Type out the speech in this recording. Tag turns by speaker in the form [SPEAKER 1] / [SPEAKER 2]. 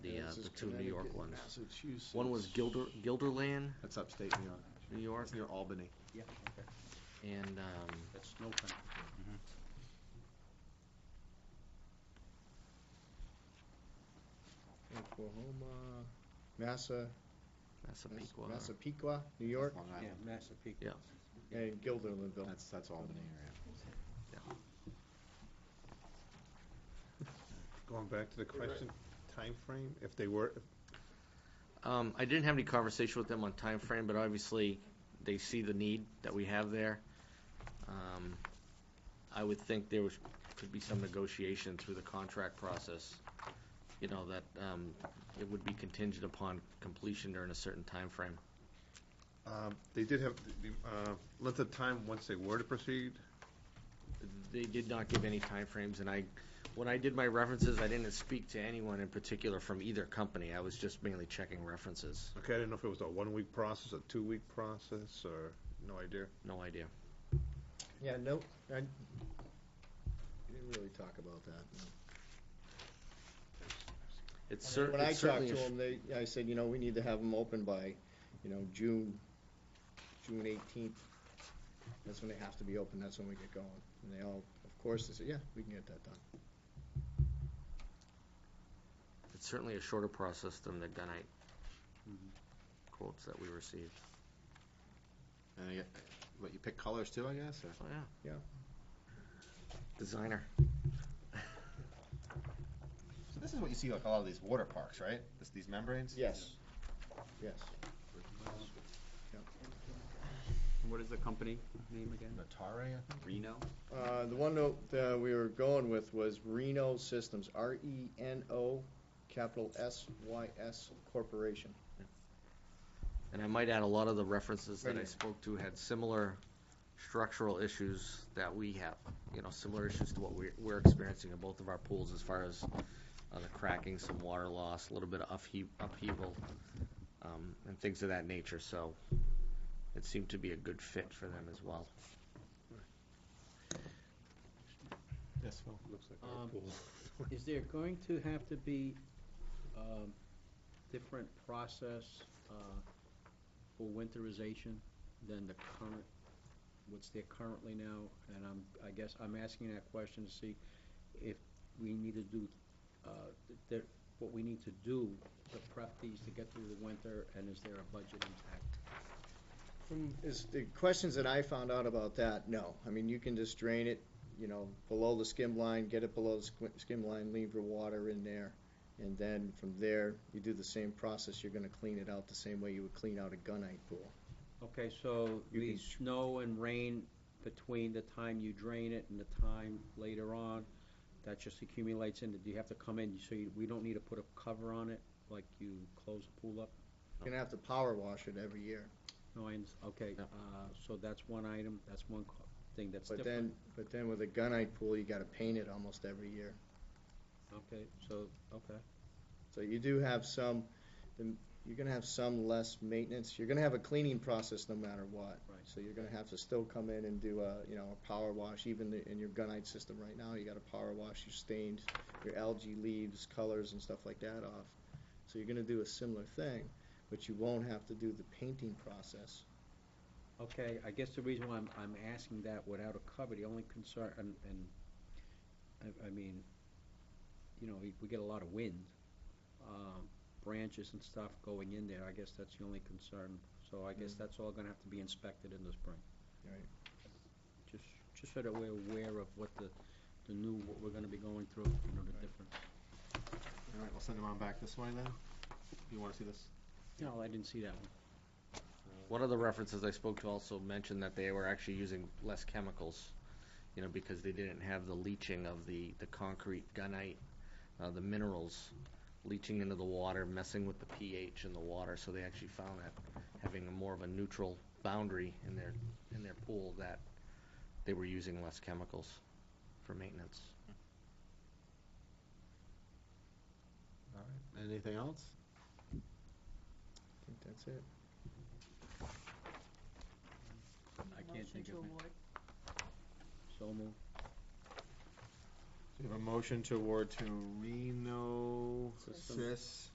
[SPEAKER 1] uh, the two New York ones.
[SPEAKER 2] Massachusetts.
[SPEAKER 1] One was Gilder, Gilderland,
[SPEAKER 2] That's upstate New York.
[SPEAKER 1] New York,
[SPEAKER 2] That's near Albany.
[SPEAKER 3] Yeah, okay.
[SPEAKER 1] and, um,
[SPEAKER 3] That's snow country.
[SPEAKER 4] Oklahoma, Massa,
[SPEAKER 1] Massapequa.
[SPEAKER 4] Massapequa, New York,
[SPEAKER 2] Long
[SPEAKER 3] Yeah,
[SPEAKER 2] Island.
[SPEAKER 1] Yeah.
[SPEAKER 3] Massapequa.
[SPEAKER 4] and Gilderlandville.
[SPEAKER 2] That's, that's Albany area.
[SPEAKER 5] Going back to the question, time frame. if they were,
[SPEAKER 1] Um, I didn't have any conversation with them on time frame, but obviously, they see the need that we have there. Um, I would think there was, could be some negotiation through the contract process, you know, that, um, it would be contingent upon completion during a certain time frame.
[SPEAKER 5] um, they did have the uh, length of time once they were to proceed.
[SPEAKER 1] They did not give any timeframes, and I, when I did my references, I didn't speak to anyone in particular from either company. I was just mainly checking references.
[SPEAKER 5] Okay, I didn't know if it was a one-week process, a two-week process, or, no idea.
[SPEAKER 1] No idea.
[SPEAKER 4] Yeah, no, I, we didn't really talk about that.
[SPEAKER 1] It's cer-
[SPEAKER 4] When I
[SPEAKER 1] it's certainly
[SPEAKER 4] talked
[SPEAKER 1] a
[SPEAKER 4] to them, they, I said, you know, we need to have them open by, you know, June, June eighteenth. That's when they have to be open, that's when we get going. And they all, of course, they said, yeah, we can get that done.
[SPEAKER 1] It's certainly a shorter process than the gunite
[SPEAKER 4] Mm-hmm.
[SPEAKER 1] quotes that we received.
[SPEAKER 2] And I get, what, you pick colors too, I guess, or?
[SPEAKER 1] Oh, yeah.
[SPEAKER 4] Yeah.
[SPEAKER 1] Designer.
[SPEAKER 2] So this is what you see like a lot of these water parks, right? This, these membranes?
[SPEAKER 4] Yes, yes.
[SPEAKER 3] What is the company name again?
[SPEAKER 2] Natare,
[SPEAKER 3] Reno?
[SPEAKER 4] Uh, the one note that we were going with was Reno Systems, R E N O, capital S Y S Corporation.
[SPEAKER 1] And I might add, a lot of the references that I
[SPEAKER 4] Right.
[SPEAKER 1] spoke to had similar structural issues that we have. You know, similar issues to what we're, we're experiencing in both of our pools as far as uh, the cracking, some water loss, a little bit of upheav- upheaval, um, and things of that nature. So it seemed to be a good fit for them as well.
[SPEAKER 2] Yes, well, looks like
[SPEAKER 3] our Um, pool. Is there going to have to be um, different process uh, for winterization than the current, what's there currently now? And I'm, I guess I'm asking that question to see if we need to do, uh, th- there- what we need to do to prep these to get through the winter, and is there a budget impact?
[SPEAKER 4] From, is, the questions that I found out about that, no. I mean, you can just drain it, you know, below the skim line, get it below the squi- skim line, leave your water in there. And then from there, you do the same process, you're gonna clean it out the same way you would clean out a gunite pool.
[SPEAKER 3] Okay, so
[SPEAKER 4] You
[SPEAKER 3] the
[SPEAKER 4] can-
[SPEAKER 3] snow and rain between the time you drain it and the time later on, that just accumulates in, do you have to come in, so you, we don't need to put a cover on it, like you close the pool up?
[SPEAKER 4] You're gonna have to power wash it every year.
[SPEAKER 3] No, I, under- okay,
[SPEAKER 1] No.
[SPEAKER 3] uh, so that's one item, that's one co- thing that's
[SPEAKER 4] But
[SPEAKER 3] different.
[SPEAKER 4] then, but then with a gunite pool, you gotta paint it almost every year.
[SPEAKER 3] Okay, so, okay,
[SPEAKER 4] So you do have some, the- you're gonna have some less maintenance, you're gonna have a cleaning process no matter what.
[SPEAKER 3] Right.
[SPEAKER 4] So you're gonna have to still come in and do a, you know, a power wash, even the- in your gunite system right now, you gotta power wash your stains, your algae leaves, colors and stuff like that off. So you're gonna do a similar thing, but you won't have to do the painting process.
[SPEAKER 3] okay, I guess the reason why I'm, I'm asking that without a cover, the only concern, and, and, I, I mean, you know, we, we get a lot of wind, um, branches and stuff going in there, I guess that's the only concern, so I guess that's all gonna have to be inspected in the spring.
[SPEAKER 4] Right.
[SPEAKER 3] Just, just so that we're aware of what the, the new, what we're gonna be going through, you know, the different.
[SPEAKER 2] All right, we'll send them on back this way then. You wanna see this?
[SPEAKER 3] No, I didn't see that one.
[SPEAKER 1] One of the references I spoke to also mentioned that they were actually using less chemicals, you know, because they didn't have the leaching of the, the concrete gunite, uh, the minerals leaching into the water, messing with the pH in the water, so they actually found that having a more of a neutral boundary in their, in their pool, that they were using less chemicals for maintenance.
[SPEAKER 2] All right, anything else?
[SPEAKER 4] I think that's it.
[SPEAKER 3] I can't think of it. So moved.
[SPEAKER 2] We have a motion to award to Reno
[SPEAKER 3] Systems.
[SPEAKER 2] Sys